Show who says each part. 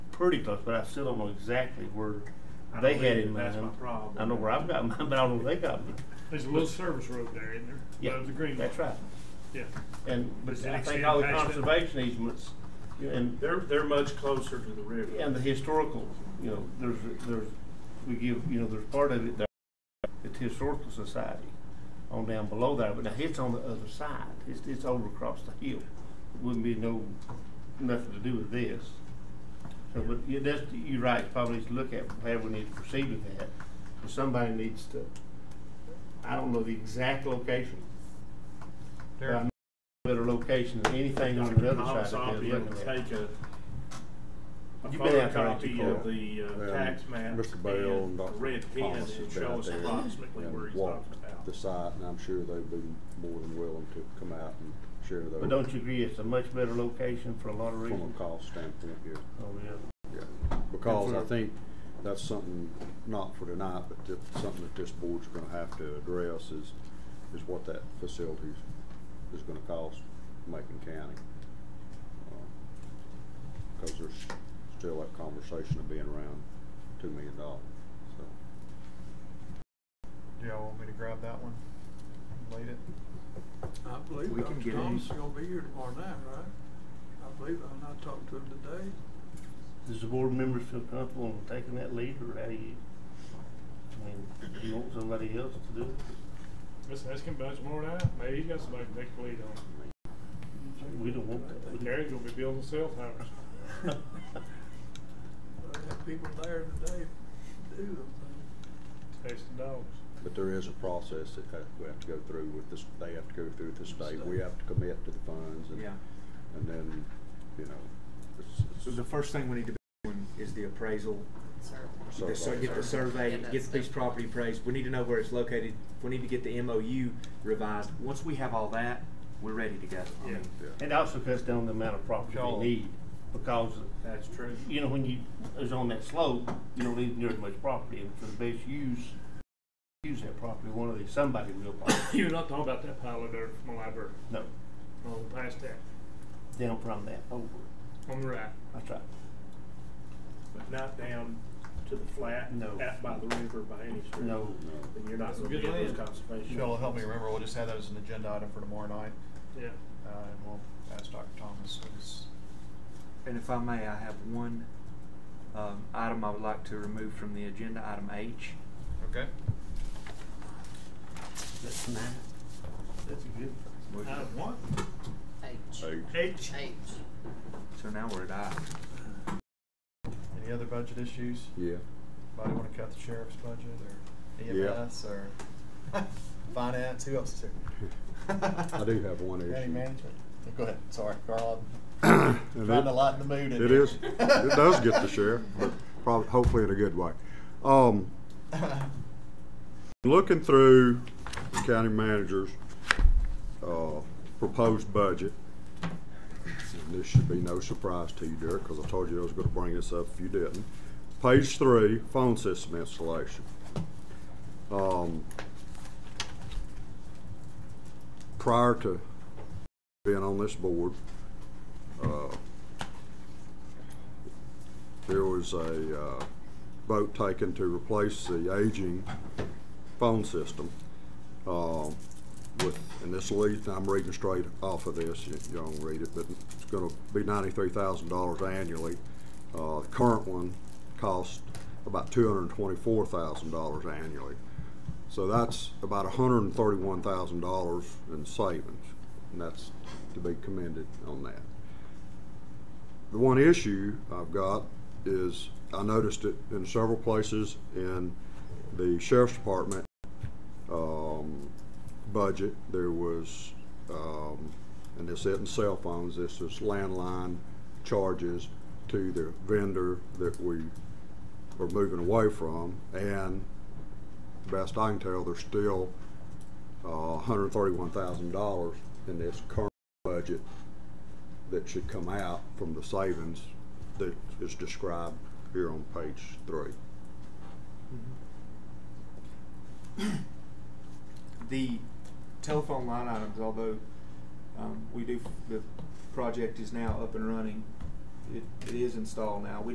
Speaker 1: pretty close, but I still don't know exactly where
Speaker 2: I don't
Speaker 1: they had
Speaker 2: either.
Speaker 1: in mind.
Speaker 2: That's my problem.
Speaker 1: I know where I've got mine, but I don't know where they got mine.
Speaker 2: There's a little service road there, isn't there?
Speaker 1: Yeah,
Speaker 2: Above the green.
Speaker 1: That's
Speaker 2: line.
Speaker 1: right.
Speaker 2: Yeah.
Speaker 1: And, but
Speaker 2: Does it
Speaker 1: I think
Speaker 2: extend
Speaker 1: all the
Speaker 2: past that?
Speaker 1: conservation easements and,
Speaker 3: They're, they're much closer to the river.
Speaker 1: and the historical, you know, there's, there's, we give, you know, there's part of it that, it's historical society on down below there, but now it's on the other side. It's, it's over across the hill. Wouldn't be no, nothing to do with this. So, but you, that's, you're right, probably need to look at how we need to proceed with that. But somebody needs to, I don't know the exact location, but I know a better location than anything on the other
Speaker 3: Miles
Speaker 1: side of
Speaker 3: Oppie
Speaker 1: it.
Speaker 3: will take a, a
Speaker 1: You've been out there, ain't you,
Speaker 3: photocopy of
Speaker 1: Cora?
Speaker 3: the uh,
Speaker 4: And
Speaker 3: tax map.
Speaker 4: Mr. um, Bell and
Speaker 3: the
Speaker 4: Dr.
Speaker 3: Red pen
Speaker 4: Thomas
Speaker 3: and
Speaker 4: has been
Speaker 3: show
Speaker 4: out
Speaker 3: us
Speaker 4: there
Speaker 3: approximately
Speaker 4: and
Speaker 3: where he's talking
Speaker 4: walked
Speaker 3: about.
Speaker 4: The site, and I'm sure they'd be more than willing to come out and share those.
Speaker 1: But don't you agree it's a much better location for a lot of
Speaker 4: From
Speaker 1: reasons?
Speaker 4: a cost standpoint, yeah,
Speaker 1: Oh, yeah.
Speaker 4: yeah. Because I
Speaker 1: for-
Speaker 4: think that's something, not for tonight, but that- something that this board's gonna have to address is, is what that facilities is gonna cost Macon County. Because there's still that conversation of being around two million dollars, so.
Speaker 5: Do y'all want me to grab that one? and Late it?
Speaker 6: I believe
Speaker 5: We can
Speaker 6: Dr.
Speaker 5: get
Speaker 6: Thomas
Speaker 5: these.
Speaker 6: is gonna be here tomorrow night, right? I believe, I'm not talking to him today.
Speaker 1: Does the board members feel comfortable in taking that lead, or how do you, I mean, do you want somebody else to do it?
Speaker 2: Let's ask him about it tomorrow night. Maybe he's got somebody to take the lead on.
Speaker 1: We don't want that.
Speaker 2: it. Gary's gonna be building cell towers.
Speaker 6: But I have people there today to do them things.
Speaker 2: Chasing dogs.
Speaker 4: But there is a process that ha- we have to go through with this, they have to go through with the state, we have to commit to the funds and,
Speaker 7: Yeah.
Speaker 4: and then, you know, it's, it's.
Speaker 7: So the first thing we need to be doing is the appraisal. The sur-
Speaker 4: survey.
Speaker 7: get the survey,
Speaker 8: Yeah, that's
Speaker 7: get these
Speaker 8: the-
Speaker 7: property appraised. We need to know where it's located. We need to get the MOU revised. Once we have all that, we're ready to go. I
Speaker 2: Yeah.
Speaker 7: mean,
Speaker 4: Yeah.
Speaker 1: It also cuts down the amount of property
Speaker 7: Y'all-
Speaker 1: they need, because,
Speaker 7: That's true.
Speaker 1: you know, when you, is on that slope, you don't need near as much property, and for the best use, use that property, one of these, somebody will buy it.
Speaker 2: You're not talking about that pile of dirt from the library.
Speaker 1: No,
Speaker 2: On Oh, past that.
Speaker 1: down from that over,
Speaker 2: On the right.
Speaker 1: that's right.
Speaker 3: But not down to the flat,
Speaker 1: No.
Speaker 3: out by the river by any stretch.
Speaker 1: No,
Speaker 3: Then you're not
Speaker 2: That's some
Speaker 3: gonna get
Speaker 2: good
Speaker 3: those
Speaker 2: land.
Speaker 3: conservation.
Speaker 5: Y'all help me remember, we'll just have that as an agenda item for tomorrow night,
Speaker 2: Yeah.
Speaker 5: uh, and we'll ask Dr. Thomas his
Speaker 7: And if I may, I have one um, item I would like to remove from the agenda, item H.
Speaker 5: Okay.
Speaker 1: that's nice. That's a good.
Speaker 7: Motion.
Speaker 2: Item Uh, one.
Speaker 8: H.
Speaker 2: H.
Speaker 8: H.
Speaker 7: So now we're at I.
Speaker 5: Any other budget issues?
Speaker 4: Yeah,
Speaker 5: Anybody wanna cut the sheriff's budget
Speaker 4: Yeah.
Speaker 5: or EMS or finance? Who else is here?
Speaker 4: I do have one issue.
Speaker 5: County management? Go ahead, sorry, Carl,
Speaker 4: And
Speaker 5: I'm trying
Speaker 4: it-
Speaker 5: to lighten the mood in
Speaker 4: It
Speaker 5: here.
Speaker 4: is, it does get the sheriff, but probably, hopefully in a good way. Um, Looking through the county manager's uh, proposed budget, and this should be no surprise to you, Derek, because I told you I was going to bring this up if you didn't. Page three, phone system installation. Um, Prior to being on this board, uh, there was a uh, vote taken to replace the aging phone system uh, with, and this leads, I'm reading straight off of this, you you don't read it, but it's going to be ninety-three thousand dollars annually. Uh, The current one costs about two hundred and twenty-four thousand dollars annually. So that's about hundred and thirty-one thousand dollars in savings, and that's to be commended on that. The one issue I've got is I noticed it in several places in the sheriff's department um, budget. There was, um, and this isn't cell phones, this is landline charges to the vendor that we are moving away from. And best I can tell, there's still uh, $131,000 in this current budget that should come out from the savings that is described here on page three.
Speaker 7: The telephone line items, although um, we do, the project is now up and running, it, it is installed now. We